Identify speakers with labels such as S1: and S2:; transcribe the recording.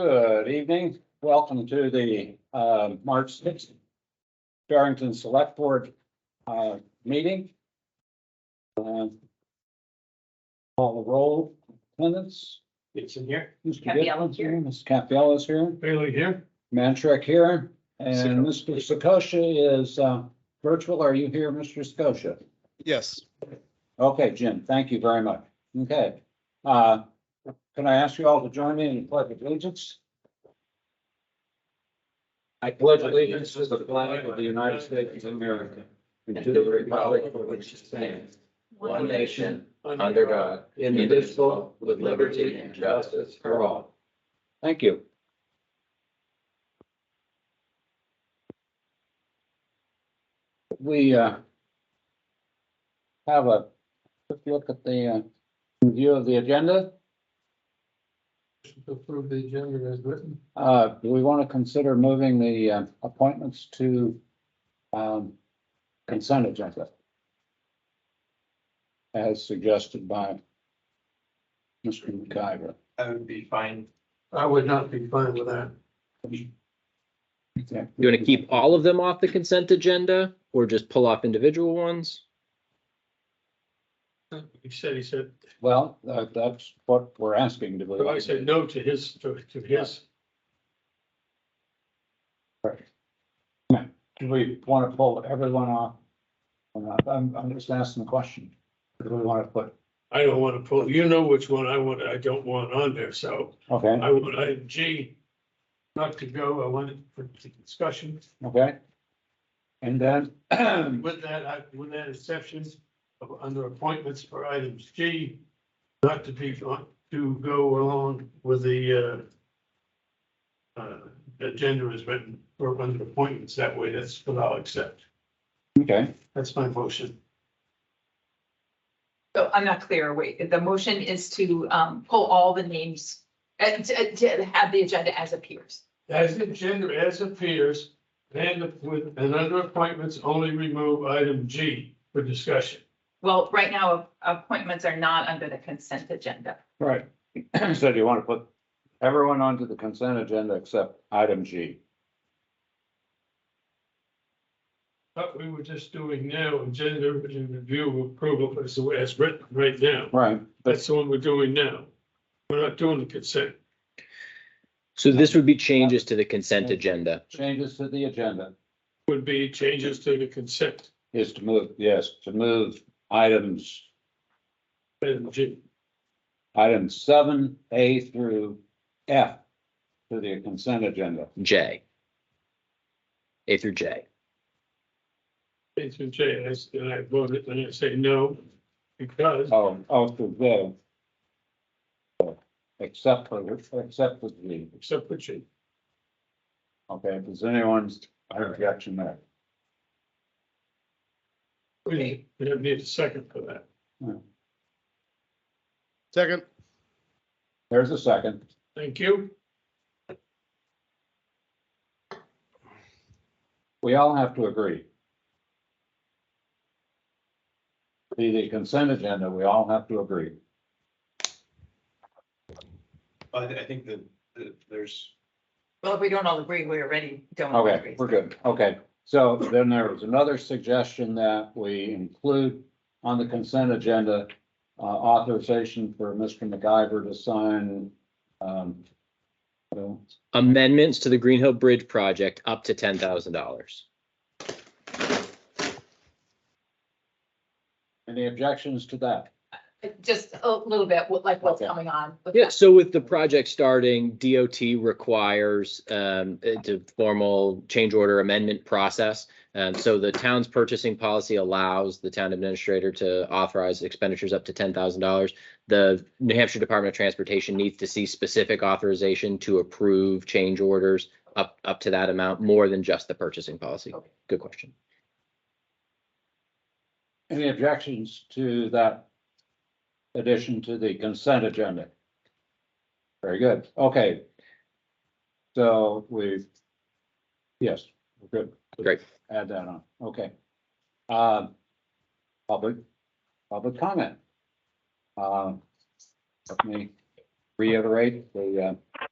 S1: Good evening. Welcome to the uh, March sixth Barrington Select Board uh, meeting. Uh, Call the roll, attendance.
S2: It's in here.
S1: Mr.
S3: Capella
S1: Gibson's
S3: here.
S1: Ms. Capella is here,
S2: Bailey here.
S1: Mantrek here, and
S2: Sicko.
S1: Mr. Sakosha is uh, virtual. Are you here, Mr. Sakosha?
S4: Yes,
S1: Okay, Jim, thank you very much. Okay. Uh, Can I ask you all to join me in the pledge of allegiance? I pledge
S2: allegiance to the flag of the United States of America
S5: and to the republic for which it stands, one nation, under God, indivisible, with liberty and justice for all.
S1: Thank you. We uh, have a quick look at the uh, review of the agenda.
S2: Approve the agenda as written.
S1: Uh, do we want to consider moving the uh, appointments to um, consent agenda? As suggested by Mr. McIver.
S2: I would be fine. I would not be fine with that.
S5: You want to keep all of them off the consent agenda or just pull off individual ones?
S2: He said, he said,
S1: Well, that- that's what we're asking. Do we?
S2: I said no to his, to to his.
S1: Do we want to pull everyone off? or not? I'm, I'm just asking the question. Do we want to put,
S2: I don't want to pull, you know which one I want, I don't want on there, so
S1: okay,
S2: I would, I, G, not to go, I want it for discussion.
S1: okay? And then,
S2: With that, I, with that exception of under appointments for items G, not to be, to go along with the uh, uh, agenda is written for under appointments. That way, that's what I'll accept.
S1: okay,
S2: That's my motion.
S3: So I'm not clear. Wait, the motion is to um pull all the names and to uh, to have the agenda as appears.
S2: As the agenda as appears, and with, and under appointments, only remove item G for discussion.
S3: Well, right now, appointments are not under the consent agenda.
S1: right. So do you want to put everyone onto the consent agenda except item G?
S2: But we were just doing now, agenda review approval as, as written right now.
S1: Right, but
S2: That's the one we're doing now. We're not doing the consent.
S5: So this would be changes to the consent agenda.
S1: changes to the agenda
S2: Would be changes to the consent.
S1: is to move, yes, to move items,
S2: And G-
S1: items seven, A through F to the consent agenda.
S5: J. A through J.
S2: A through J, and I s- and I voted, and I say no, because
S1: Oh, oh, through J. Except for, except for G.
S2: except for G.
S1: Okay, if there's anyone's objection there.
S2: We we don't need a second for that.
S4: second,
S1: There's a second.
S2: Thank you.
S1: We all have to agree. The, the consent agenda, we all have to agree.
S6: I, thi- I think that, that there's,
S3: Well, if we don't all agree, we already don't. all
S1: Okay,
S3: agree.
S1: we're good. Okay. So then there was another suggestion that we include on the consent agenda, uh, authorization for Mr. MacGyver to sign, um, so,
S5: Amendments to the Green Hill Bridge project up to ten thousand dollars.
S1: any objections to that?
S3: Just a little bit, what- like what's
S1: Okay.
S3: coming on. with
S5: Yeah,
S3: that.
S5: so with the project starting, DOT requires um uh, to formal change order amendment process. And so the town's purchasing policy allows the town administrator to authorize expenditures up to ten thousand dollars. The New Hampshire Department of Transportation needs to see specific authorization to approve change orders up up to that amount, more than just the purchasing policy.
S3: Okay.
S5: Good question.
S1: Any objections to that addition to the consent agenda? Very good, okay. So we, yes, we're good.
S5: Great.
S1: Add that on, okay. Um, Public, public comment. Um, Let me reiterate the uh,